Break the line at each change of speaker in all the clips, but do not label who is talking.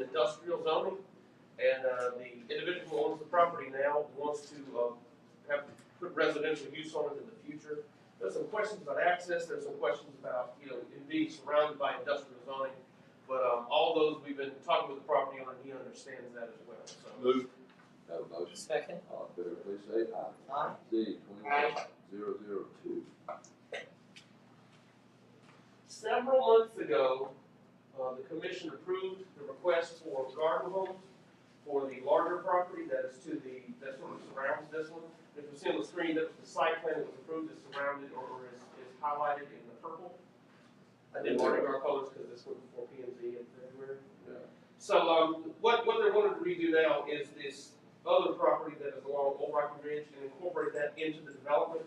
industrial zoning, and, uh, the individual who owns the property now wants to, um, have, put residential use on it in the future. There's some questions about access, there's some questions about, you know, it being surrounded by industrial zoning, but, um, all those, we've been talking with the property owner, and he understands that as well, so.
Move.
Have a motion,
Second.
all in favor, please say aye.
Aye.
Z twenty-one zero zero two.
Several months ago, uh, the commission approved the request for garden homes for the larger property that is to the, that sort of surrounds this one. If you see on the screen, that the site plan that was approved is surrounded or is, is highlighted in the purple. I didn't want to go colors because this went before P and Z in February. So, um, what, what they're wanting to redo now is this other property that is along Old Rocky Ridge and incorporate that into the development.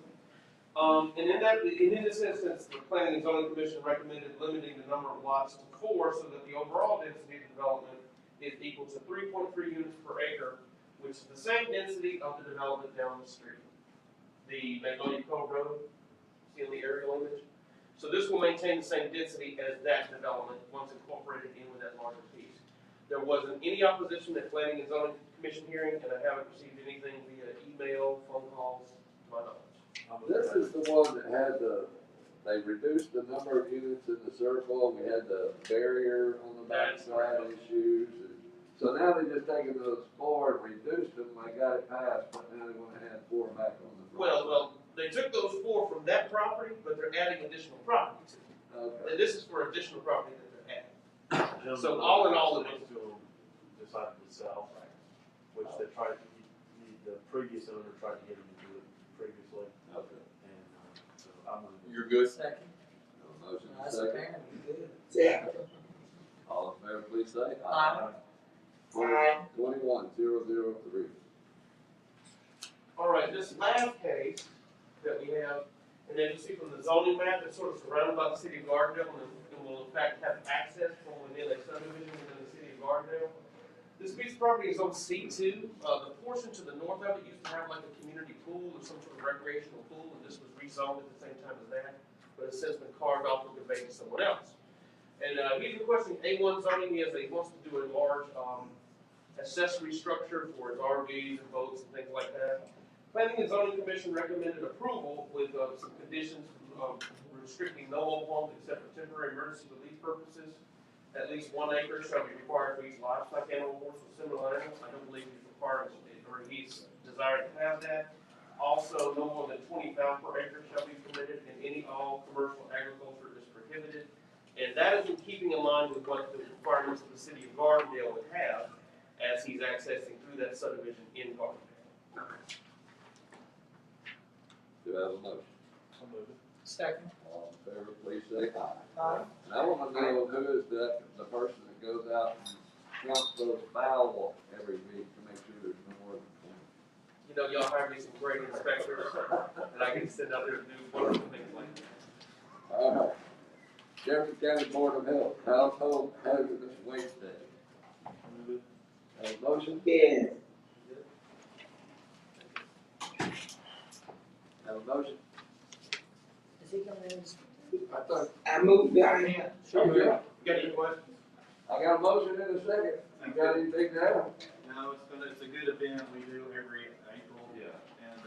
Um, and in that, and in this instance, the planning and zoning commission recommended limiting the number of lots to four so that the overall density of development is equal to three point three units per acre, which is the same density of the development down the street. The Magnolia Cove Road, see in the aerial image? So this will maintain the same density as that development once incorporated in with that larger piece. There wasn't any opposition at planning and zoning commission hearing, and I haven't received anything via email, phone calls, to my knowledge.
This is the one that had the, they reduced the number of units in the circle, we had the barrier on the
That's
backside issues. and- So now they just taken those four and reduced them, they got it passed, but now they wanna add four back on the. front.
Well, well, they took those four from that property, but they're adding additional property to it.
Okay,
And this is for additional property that they're adding.
So all in all, it was to decide to sell, which they tried to, the- the previous owner tried to get him to do it previously,
okay.
and, uh, so I'm gonna.
You're good?
Second.
No Motion
That's
second,
apparently good.
all in favor, please say aye.
Aye.
Twenty-one zero zero three.
All right, this last case that we have, and as you see from the zoning map, it's sort of surrounded by the city of Gardendale and and will in fact have access from within a subdivision within the city of Gardendale. This piece of property is on C two, uh, the portion to the north of it used to have like a community pool or some sort of recreational pool, and this was rezoned at the same time as that, but it's since been carved off and conveyed to someone else. And, uh, he's requesting A one zoning, he has, he wants to do a large, um, accessory structure for his RVs and boats and things like that. Planning and zoning commission recommended approval with, uh, some conditions, um, restricting no mobile homes except for temporary emergency relief purposes. At least one acre shall be required for each livestock animal, horse or similar animal, I don't believe he's requiring, or he's desired to have that. Also, no more than twenty pounds per acre shall be permitted, and any all commercial agriculture is prohibited. And that is in keeping in line with what the requirements of the city of Gardendale would have, as he's accessing through that subdivision in Gardendale.
Do I have a motion?
I'll move it.
Second.
All in favor, please say aye.
Aye.
And I wanna know who is that, the person that goes out and counts those foul every week to make sure there's no more than
You know, y'all hired me some great inspectors, and I can sit out there and do wonderful things like that.
twenty. Alright. Jefferson County Board of Health, Household Hazardous Waste Day.
I'll move it.
Have a motion?
Yes.
Have a motion?
Is he coming in?
I thought.
I moved down here.
Sure.
You got any questions?
I got a motion in a second. You got anything now?
No, it's gonna, it's a good event we do every April,
Yeah.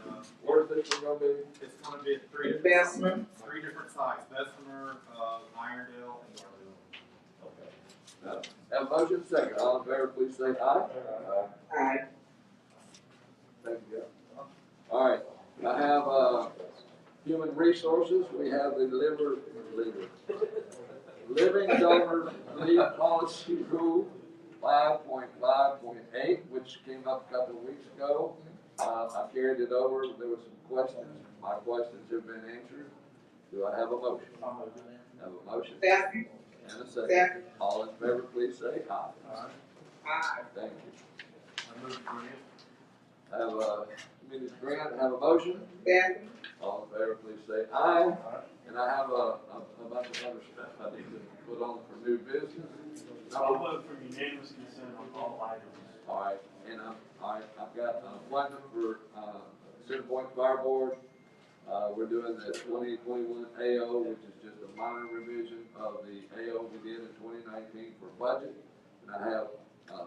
and, uh,
Where's this one gonna be?
it's gonna be at three,
Investment,
three different sites, Bessemer, uh, Irondale, and Darville.
Have a motion second. All in favor, please say aye. Aye.
I,
Thank you. All right, I have, uh, human resources, we have the liver, liver. Living donor leave policy rule five point five point eight, which came up a couple of weeks ago. Uh, I carried it over, there were some questions, my questions have been answered. Do I have a motion?
I'll move it.
Have a motion
second,
and a second.
second,
All in favor, please say aye.
I,
Thank you.
I'll move it, Grant.
Have, uh, Ms. Grant, have a motion?
second,
All in favor, please say aye. And I have a, a a bunch of other stuff I need to put on for new business.
I'll
All
vote for unanimous consent on all items.
right, and I'm, all right, I've got an appointment for, uh, Center Point Fire Board. Uh, we're doing the twenty twenty-one AO, which is just a minor revision of the AO we did in twenty nineteen for budget. And I have